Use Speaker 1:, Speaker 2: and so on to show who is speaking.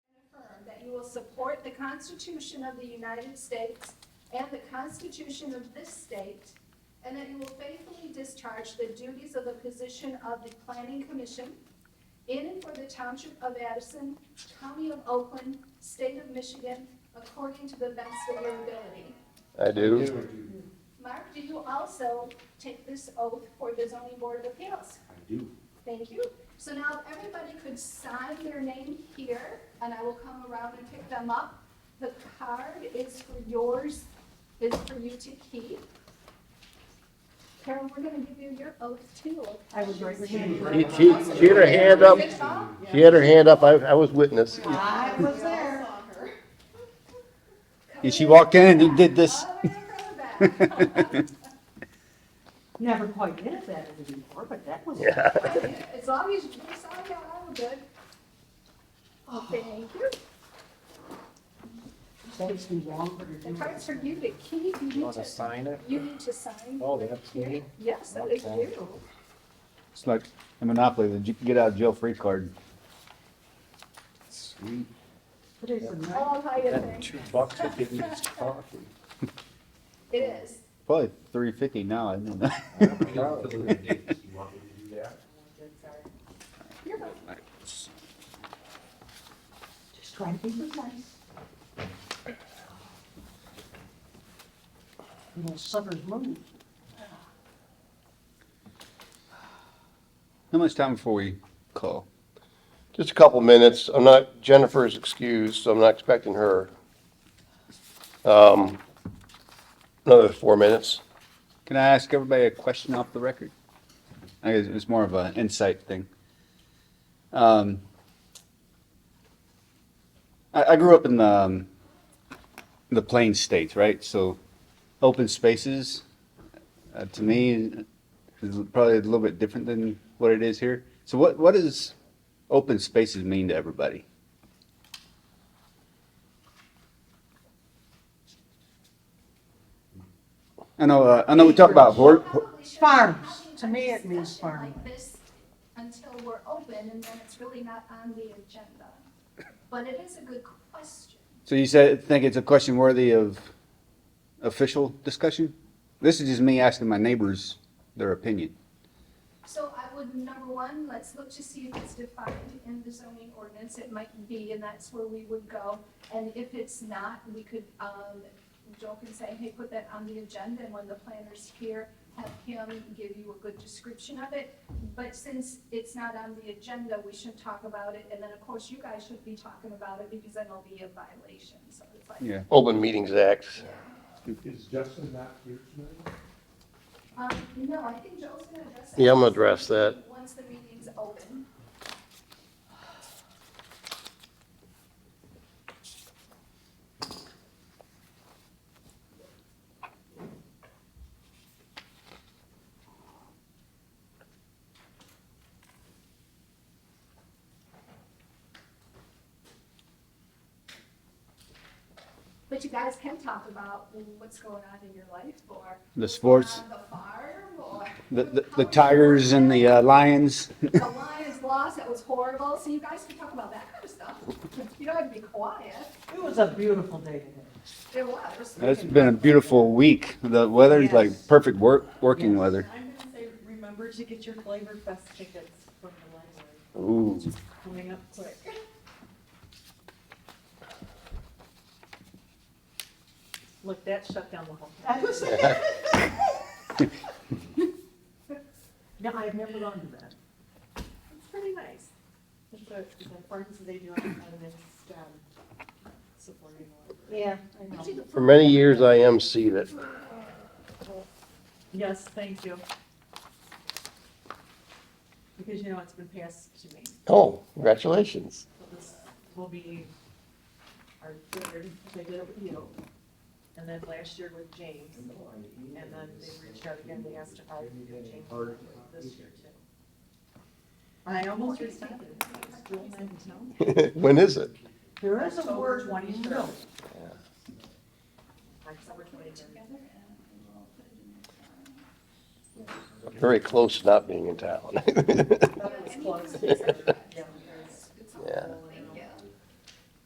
Speaker 1: support the Constitution of the United States and the Constitution of this state, and that you will faithfully discharge the duties of the position of the Planning Commission in and for the Township of Addison, County of Oakland, State of Michigan, according to the best of your ability.
Speaker 2: I do.
Speaker 1: Mark, do you also take this oath for the zoning board of appeals?
Speaker 3: I do.
Speaker 1: Thank you. So now if everybody could sign their name here, and I will come around and pick them up. The card is for yours, is for you to keep. Carol, we're gonna give you your oath too.
Speaker 4: I was right hand.
Speaker 2: She, she, she had her hand up,
Speaker 1: Good job.
Speaker 2: she had her hand up, I, I was witness.
Speaker 4: I was there.
Speaker 3: she walked in and did this.
Speaker 1: All the way around the back.
Speaker 4: Never quite did it that easy before, but that was.
Speaker 2: Yeah.
Speaker 1: As long as you sign that, I'm good. Thank you.
Speaker 4: Takes me longer to
Speaker 1: The
Speaker 4: do.
Speaker 1: card's for you to keep. You need to,
Speaker 5: sign it?
Speaker 1: you need to sign.
Speaker 5: Oh, that's me?
Speaker 1: Yes, that is
Speaker 5: Okay.
Speaker 1: you.
Speaker 3: It's like a Monopoly, the j- get out of jail free card. Sweet.
Speaker 4: But it's a nice.
Speaker 1: Oh, how you
Speaker 5: That
Speaker 1: think.
Speaker 5: two bucks to give me this coffee.
Speaker 1: It is.
Speaker 3: Probably three fifty now, I don't know.
Speaker 1: You're welcome.
Speaker 4: Just try to be precise. Little sucker's move.
Speaker 3: How much time before we call?
Speaker 2: Just a couple minutes, I'm not, Jennifer's excused, so I'm not expecting her. Um, another four minutes.
Speaker 3: Can I ask everybody a question off the record? I guess it's more of an insight thing. Um, I, I grew up in the, um, the plain states, right? So open spaces, uh, to me, is probably a little bit different than what it is here. So what, what does open spaces mean to everybody? I know, uh, I know we talk about, hor- hor-
Speaker 4: Farms. To me, it means farm.
Speaker 1: Like this Until we're open and then it's really not on the agenda. But it is a good question.
Speaker 3: So you said, think it's a question worthy of official discussion? This is just me asking my neighbors their opinion.
Speaker 1: So I would, number one, let's look to see if it's defined in the zoning ordinance, it might be, and that's where we would go. And if it's not, we could, um, Joel can say, hey, put that on the agenda, and when the planner's here, have him give you a good description of it. But since it's not on the agenda, we should talk about it, and then of course you guys should be talking about it, because then it'll be a violation, so it's like.
Speaker 3: Yeah.
Speaker 2: Open Meetings Act.
Speaker 5: Is Justin not here tonight?
Speaker 1: Um, no, I think Joel's gonna address that.
Speaker 2: Yeah, I'm gonna address that.
Speaker 1: Once the meeting's open. But you guys can talk about what's going on in your life or
Speaker 3: The sports,
Speaker 1: on the farm or
Speaker 3: the, the, the tigers and the uh, lions.
Speaker 1: the Lions lost, that was horrible. So you guys can talk about that kind of stuff. You don't have to be quiet.
Speaker 4: It was a beautiful day today.
Speaker 1: It was.
Speaker 3: It's been a beautiful week. The weather's like
Speaker 6: Yes.
Speaker 3: perfect work, working weather.
Speaker 6: I'm gonna say, remember to get your Flavor Fest tickets from the library,
Speaker 3: Ooh.
Speaker 6: coming up quick. Look, that shut down the whole.
Speaker 4: I was- No, I've never gone to that.
Speaker 6: It's pretty nice. It's a, it's a farms they do, and it's, um, supporting. the library.
Speaker 4: Yeah, I know.
Speaker 2: For many years, I emceed it.
Speaker 6: Yes, thank you. Because, you know, it's been passed to me,
Speaker 2: Oh, congratulations.
Speaker 6: so this will be our third, they did it with you. And then last year with James. And then they reached out again, they asked if I could do change this year too. I almost responded, it's Jewel Mantell.
Speaker 2: When is it?
Speaker 4: There is a
Speaker 6: October
Speaker 4: word.
Speaker 6: 23rd.
Speaker 4: no.
Speaker 6: October twenty-third.
Speaker 2: Very close to not being in town.
Speaker 6: That was close.
Speaker 2: Yeah.
Speaker 6: Yeah.